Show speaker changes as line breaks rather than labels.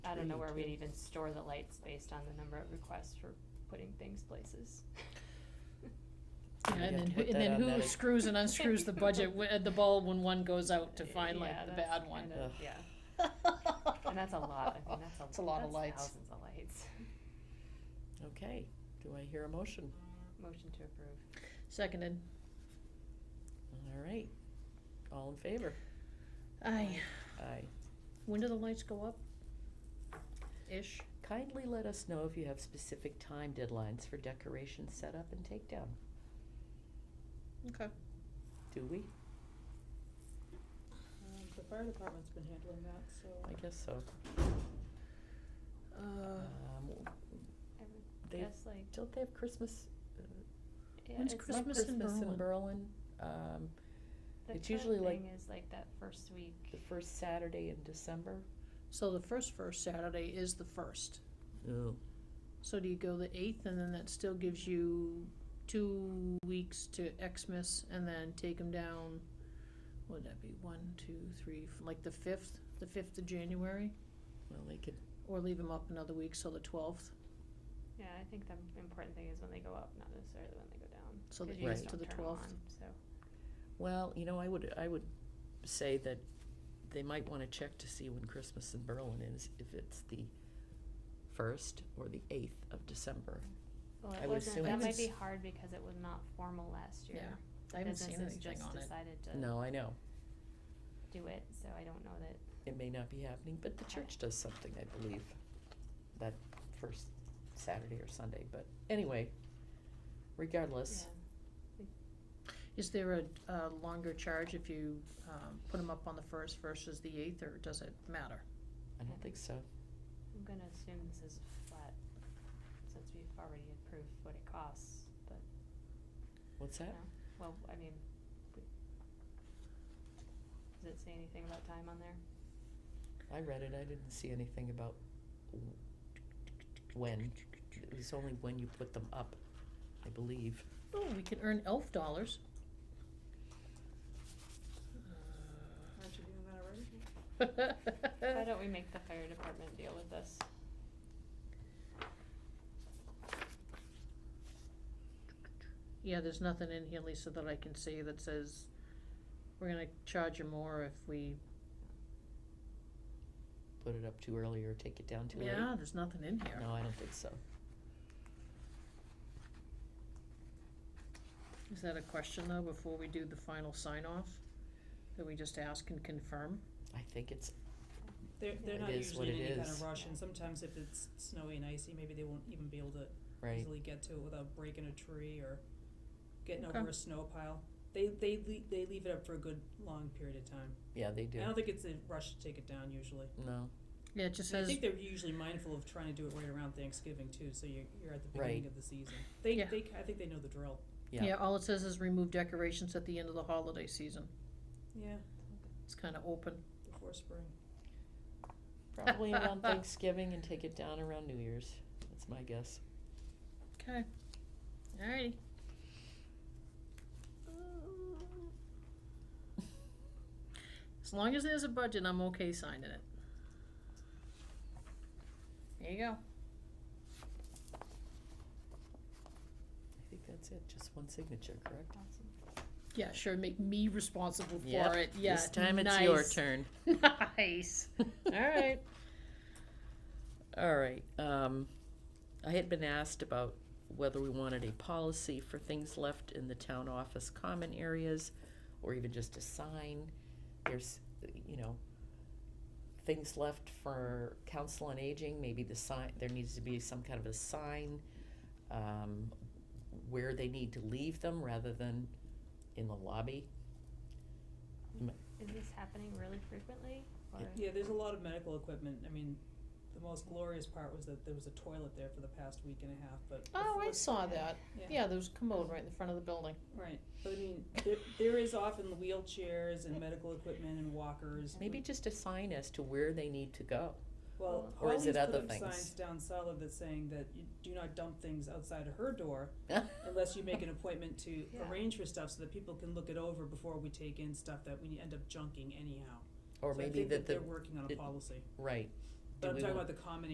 don't know where we'd even store the lights based on the number of requests for putting things places.
Yeah,
We'd have
and then,
to
who-
put
and
that
then
on
who
that ag-
screws and unscrews the budget, wi- uh, the ball when one goes out Oh, to find
Uh, Yeah,
like the
that's
bad one?
kind of-
Ugh.
Yeah, and that's a lot, I mean, that's a,
It's a lot of
that's
lights.
thousands of lights.
Okay, do I hear a motion?
Motion to approve.
Seconded.
All right, all in favor?
Aye.
Aye.
When do the lights go up? Ish.
Kindly let us know if you have specific time deadlines for decoration setup and takedown.
Okay.
Do we?
Um, The fire department's been handling that, so.
I guess so.
Uh,
Um,
I would
they,
guess like,
don't they have Christmas? uh,
yeah,
When's
it's
not
like,
Christmas in Berlin.
Berlin, um,
the
it's
current
usually like-
thing is like that first
the
week,
first Saturday in December.
so the first first Saturday is the first.
Oh.
So do you go the eighth, and then that still gives you two weeks to Xmas, and then take them down. Would that be one, two, three, f- like the fifth, the fifth of January,
Well, they could,
or leave them up another week, so the twelfth,
yeah, I think the important thing is when they go up, not necessarily when they go down.
so the
'cause you
eighth
just
to
don't
the
turn 'em
twelfth.
on, So,
well, you know, I would, I would say that they might wanna check to see when Christmas in Berlin is, if it's the first or the eighth of December.
well,
I
it
would assume
wasn't, that might
it's-
be hard because it was not formal last year.
Yeah,
The
I haven't seen
businesses
anything
just
on it.
Decided to
No, I know,
do it, so I don't know that,
it may not be happening, but the church does something, I believe, that first Saturday or Sunday, but anyway,
yeah.
regardless,
Is there a, a longer charge if you, um, put them up on the first versus the eighth, or does it matter?
I don't think so.
I'm gonna assume this is flat, since we've already approved what it costs, but,
What's
no,
that?
well, I mean, we- does it say anything about time on there?
I read it, I didn't see anything about w- when, it was only when you put them up, I believe.
Oh, we can earn elf dollars.
Aren't you doing that already?
Uh,
Why don't we make the fire department deal with this?
Yeah, there's nothing in here, Lisa, that I can see that says we're gonna charge you more if we,
Put it up too early or take it down too late.
yeah, there's nothing in here.
No, I don't think so.
Is that a question though, before we do the final sign off? That we just ask and confirm?
I think it's,
They're, they're
It
not
is what
usually in
it
any kind
is.
of rush, and sometimes if it's snowy and icy, maybe they won't even be able to
right,
easily get to it without breaking a tree or getting
Okay.
over a snow pile. They, they, le- they leave it up for a good, long period of time.
yeah, they do,
I don't think it's a rush to take it down usually.
no,
Yeah, it just
And I
says,
think they're usually mindful of trying to do it right around Thanksgiving too, so you're, you're at the
Right.
beginning of the season. They,
Yeah.
they, I think they know the drill.
yeah.
yeah, all it says is remove decorations at the end of the holiday season.
Yeah,
It's kinda open.
before spring.
Probably around Thanksgiving and take it down around New Year's, that's my guess.
Okay. Alrighty. As long as there's a budget, I'm okay signing it. There you go.
I think that's it, just one signature, correct?
Awesome.
Yeah, sure, make me responsible
Yep,
for it, yeah,
This time it's your
nice.
turn.
Nice. Alright.
All right, um, I had been asked about whether we wanted a policy for things left in the town office common areas, or even just a sign, there's, you know, things left for council on aging, maybe the sign, there needs to be some kind of a sign, um, where they need to leave them rather than in the lobby.
Is this happening really frequently, or,
Yeah, there's a lot of medical equipment. I mean, the most glorious part was that there was a toilet there for the past week and a half, but.
Oh, I
before-
saw that.
Yeah.
Yeah, there was a commode right in the front of the building.
Right, but I mean, there, there is often wheelchairs and medical equipment and walkers.
Maybe just a sign as to where they need to go.
Well,
Or is
Holly's
it
put
other
up
things?
signs down cellar that's saying that you do not dump things outside of her door unless you make an appointment to
Yeah.
arrange for stuff so that people can look it over before we take in stuff that we end up junking anyhow.
Or
So I
maybe
think
that the,
They're working on a
it-
policy.
right,
But
Do
I'm
we
talking
want-
about the common